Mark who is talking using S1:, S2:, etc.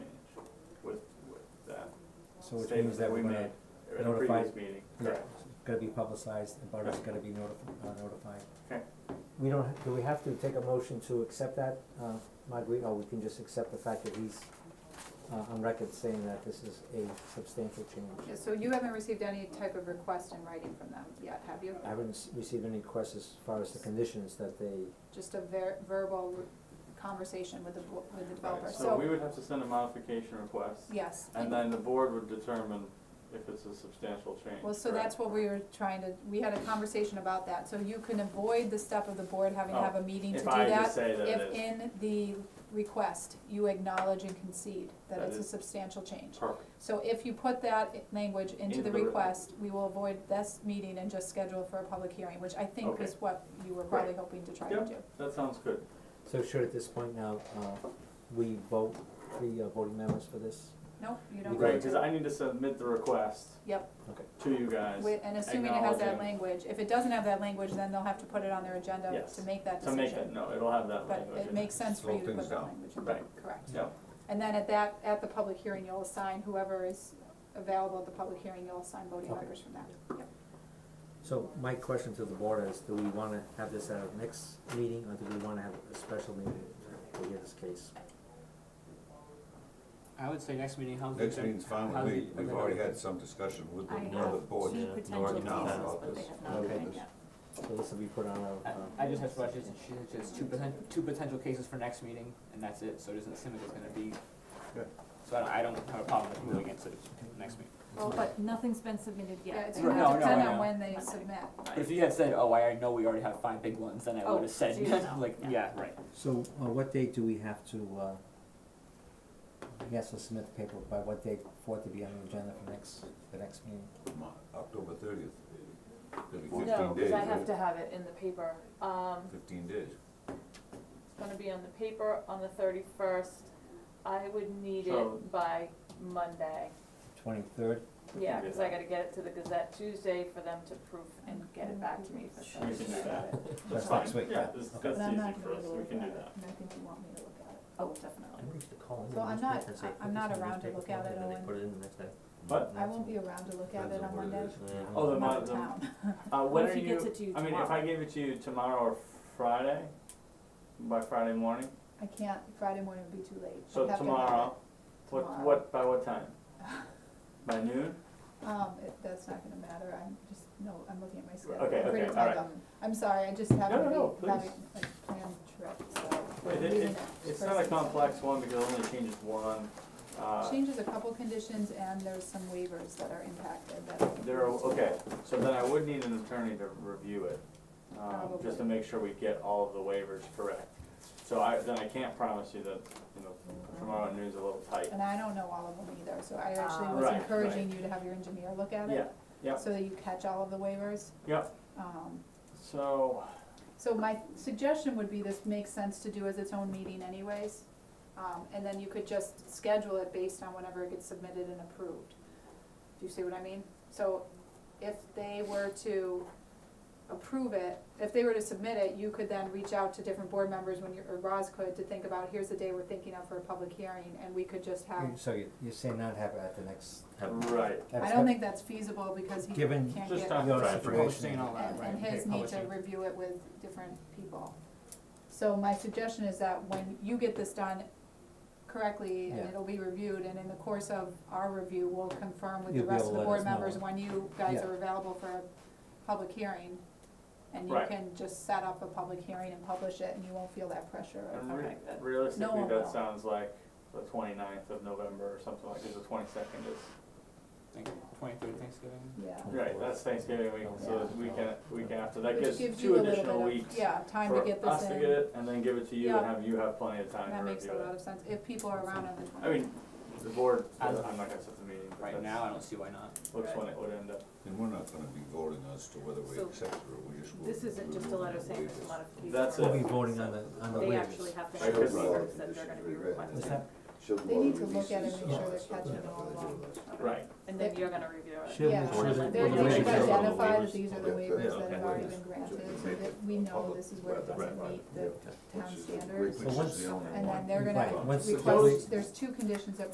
S1: So which
S2: statement
S1: means that we're gonna,
S2: we made in a
S1: notify-
S2: previous meeting.
S1: yeah,
S2: Correct.
S1: it's gonna be publicized, the butters gonna be notified, uh, notified.
S2: Okay.
S3: We don't, ha- do we have to take a motion to accept that, uh, Marguerite, or we can just accept the fact that he's, uh, on record saying that this is a substantial change?
S4: Yeah, so you haven't received any type of request in writing from them yet, have you?
S3: I
S2: Uh,
S3: haven't s- received any requests as far as the conditions that they,
S4: Just a ver- verbal conversation with the, bo- with
S2: Right,
S4: the developer,
S2: So we
S4: so,
S2: would have to send a modification request,
S4: yes.
S2: and then the board would determine if it's a substantial change.
S4: Well, so
S2: correct?
S4: that's what we were trying to, we had a conversation about that, so you can avoid the step of the board having to have a meeting to
S2: Oh, If
S4: do
S2: I just
S4: that.
S2: say that it
S4: If
S2: is,
S4: in the request, you acknowledge and concede that
S2: That
S4: it's a
S2: is-
S4: substantial change.
S2: perfect,
S4: So if you put that i- language into
S2: Into the
S4: the
S2: re-
S4: request, we will avoid this meeting and just schedule for a public hearing, which I think
S2: Okay.
S4: is what you were probably hoping to try to do.
S2: Yep. that sounds good.
S3: so should at this point now, uh, we vote, the uh, voting members for this?
S4: Nope, you don't.
S2: Right,
S4: need
S2: cause
S4: to.
S2: I need to submit the request
S4: Yep,
S2: to you guys
S4: wi- and assuming it has that
S2: acknowledging-
S4: language, if it doesn't have that language, then they'll have to put it on their agenda
S2: Yes,
S4: to make that
S2: to
S4: decision.
S2: make it, no, it'll have that
S4: But
S2: language.
S4: it makes sense for
S5: Slow
S4: you to
S5: things
S4: put that
S5: down.
S4: language in,
S2: Right.
S4: correct.
S2: Yep.
S4: And then at that, at the public hearing, you'll assign whoever is available at the public hearing, you'll assign voting
S3: Okay.
S4: members from that. Yep.
S3: So my question to the board is, do we wanna have this at our next meeting, or do we wanna have a special meeting to hear this case?
S6: I would say next meeting, how's the.
S5: Next meeting's fine
S6: how's
S5: with me,
S6: the-
S5: we've already had some discussion with the,
S7: I
S5: with
S7: have
S5: the board,
S7: two
S5: Nor
S7: potential
S5: now
S7: cases,
S5: about
S7: but they
S5: this.
S7: have not
S3: Okay.
S7: been yet.
S3: So this will be put on our, uh.
S6: I I just have to watch, she said she has two poten- two potential cases for next meeting, and that's it, so it doesn't seem like it's gonna be.
S5: Good.
S6: So I don't, I don't have a problem with moving it to next meeting.
S4: Well, but,
S7: But nothing's been submitted yet.
S4: yeah, it's
S6: Right.
S4: gonna
S6: No, no,
S4: depend
S6: I
S4: on
S6: know.
S4: when they
S7: Okay.
S4: submit.
S6: But if you had said, oh, I know we already have five big ones, then I
S7: Oh,
S6: would have said,
S7: so you know,
S6: like,
S7: yeah.
S6: yeah, right.
S3: So, uh, what date do we have to, uh, he has to submit the paperwork, by what date for it to be on the agenda for next, the next meeting?
S5: Mo- October thirtieth. It'll be
S8: No,
S5: fifteen
S8: because
S5: days,
S8: I have
S5: right?
S8: to have it in the paper. Um,
S5: Fifteen days.
S8: it's gonna be on the paper on the thirty-first. I would need
S2: So-
S8: it by Monday.
S3: Twenty-third,
S8: Yeah,
S2: do
S8: cause I
S2: that.
S8: gotta get it to the Gazette Tuesday for them to proof and get it back to me for
S2: We can
S8: Thursday.
S2: do that, that's
S3: That's
S2: fine,
S3: next week,
S2: yeah,
S3: yeah.
S2: this,
S3: Okay.
S2: that's
S4: But I'm
S2: easy
S4: not
S2: for
S4: gonna
S2: us,
S4: be
S2: we
S4: able to
S2: can do that.
S4: look at it, and I think you want me to look at it. Oh, definitely.
S3: used to call
S4: So I'm not- I- I'm not around to look at it, Owen.
S3: it in the next day.
S2: But-
S4: I won't be around to look at it on Monday.
S2: Oh, the
S4: I'm out of
S2: mon-
S4: town.
S2: Uh,
S7: What
S2: when are
S7: if he
S2: you,
S7: gets it to you
S2: I mean,
S7: tomorrow?
S2: if I gave it to you tomorrow or Friday, by Friday morning,
S4: I can't, Friday morning would be too late.
S2: so
S4: I'd have to have
S2: tomorrow, what,
S4: Tomorrow.
S2: what, by what time? By noon?
S4: it. Um, it, that's not gonna matter, I'm just, no, I'm looking at my schedule.
S2: Okay,
S4: Pretty
S2: okay,
S4: tight
S2: alright.
S4: on- I'm sorry, I just
S2: No,
S4: happen
S2: no,
S4: to
S2: no,
S4: be having a planned trip, so.
S2: Wait, it,
S4: leaving
S2: it,
S4: it
S2: it's
S4: for
S2: not a
S4: six.
S2: complex one because it only changes one, uh,
S4: Changes a couple conditions and there's some waivers that are impacted that.
S2: there, are- okay, so then I would need an attorney to review it. Um, just to
S4: Probably.
S2: make sure we get all of the waivers correct. So I, then I can't promise you that, you know, tomorrow at noon's a little tight.
S4: And I don't know all of them either, so I actually
S7: Ah.
S4: was
S2: Right,
S4: encouraging you to have your engineer look at it.
S2: Yeah, yeah.
S4: So that you catch all of the waivers.
S2: Yeah.
S4: Um,
S2: So,
S4: So my suggestion would be this makes sense to do as its own meeting anyways. Um, and then you could just schedule it based on whenever it gets submitted and approved. Do you see what I mean? So if they were to approve it, if they were to submit it, you could then reach out to different board members when you, or Roz could, to think about, here's the day we're thinking of for a public hearing, and we could just have,
S3: So you, you're saying not have it at the next,
S2: right,
S4: Uh, I don't think that's feasible because he
S3: Given-
S4: can't
S2: just
S4: get
S2: talk
S3: Your
S2: about it.
S3: situation.
S6: Posting and all that,
S4: and,
S6: right?
S4: and his
S6: okay,
S4: need to
S6: publishing.
S4: review it with different people. So my suggestion is that when you get this done correctly and
S3: Yeah.
S4: it'll be reviewed, and in the course of our review, we'll confirm with the
S3: You'll be
S4: rest of
S3: able
S4: the
S3: to let
S4: board
S3: us know.
S4: members when you guys
S3: Yeah.
S4: are available for a public hearing. And you
S2: Right.
S4: can just set up a public hearing and publish it, and you won't feel that pressure of,
S2: And re-
S8: Okay, good.
S4: No
S2: realistically,
S4: one will.
S2: that sounds like the 29th of November or something like, cause the twenty-second is,
S6: Think twenty-third Thanksgiving.
S4: yeah.
S2: right, that's Thanksgiving week, so the weekend, week after, that gives
S4: Which gives you
S2: two
S4: a little
S2: additional
S4: bit
S2: weeks
S4: of, yeah, time to get
S2: for us
S4: this
S2: to get
S4: in,
S2: it, and then give it to you and
S4: Yeah.
S2: have you have plenty of time
S4: that
S2: to
S4: makes a
S2: review
S4: lot
S2: it.
S4: of sense, if people are around on the twenty.
S2: I mean, the board, I'm
S6: As-
S2: not gonna set the meeting, but
S6: Right now, I
S2: that's,
S6: don't see why not.
S2: looks when it would end up,
S5: And we're not gonna be voting as to whether we
S8: So,
S5: accept it or we just.
S8: This isn't just a letter saying
S5: this.
S8: there's a modification.
S2: That's
S3: We'll
S2: it.
S3: be voting on the, on the waivers.
S8: They actually have to
S2: Right,
S8: have
S2: because-
S8: papers that they're gonna be
S3: What's
S8: requesting,
S3: that?
S4: They need to look at it and make sure they're catching it all along.
S2: right,
S8: and then you're gonna review it.
S3: Should-
S4: Yeah,
S3: should-
S4: they're,
S5: We're
S4: they
S5: gonna
S4: should
S5: make sure all the
S4: identify that
S5: waivers-
S4: these are the
S5: okay,
S4: waivers
S5: yeah,
S4: that have
S5: okay.
S4: already been granted, so that we know this is where it doesn't meet the town standards.
S3: once-
S4: And then they're
S3: Right,
S4: gonna
S3: once the-
S4: request, there's two conditions that